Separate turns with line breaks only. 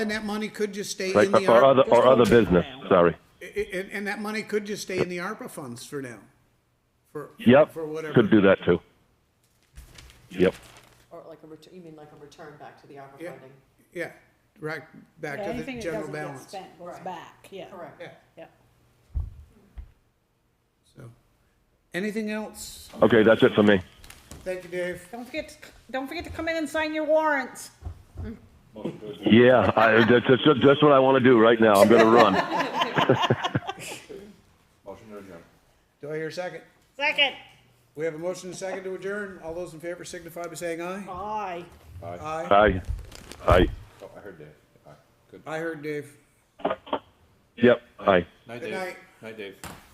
And that money could just stay
right,
in the,
or other,
Ar-
or other business, sorry.
i- i- and, and that money could just stay in the ARPA funds for now. For,
Yep,
for whatever.
could do that too. Yep,
Or like a return, you mean like a return back to the ARPA
Yeah,
funding?
yeah, right, back
Yeah,
to
Anything
the
that
general
doesn't get
balance.
spent goes
Right.
back, yeah.
Correct.
Yeah,
Yeah.
so, anything else?
okay, that's it for me.
Thank you, Dave.
Don't forget, to c- don't forget to come in and sign your warrants.
Yeah, I, that's, that's, that's what I wanna do right now, I'm gonna run.
Motion to adjourn.
Do I hear a second?
Second.
We have a motion and a second to adjourn. All those in favor signify by saying aye.
Aye.
Aye.
Aye, aye,
Oh, I heard Dave. All right, good.
I heard Dave.
yep, aye.
Night,
Good
Dave.
night.
Night, Dave.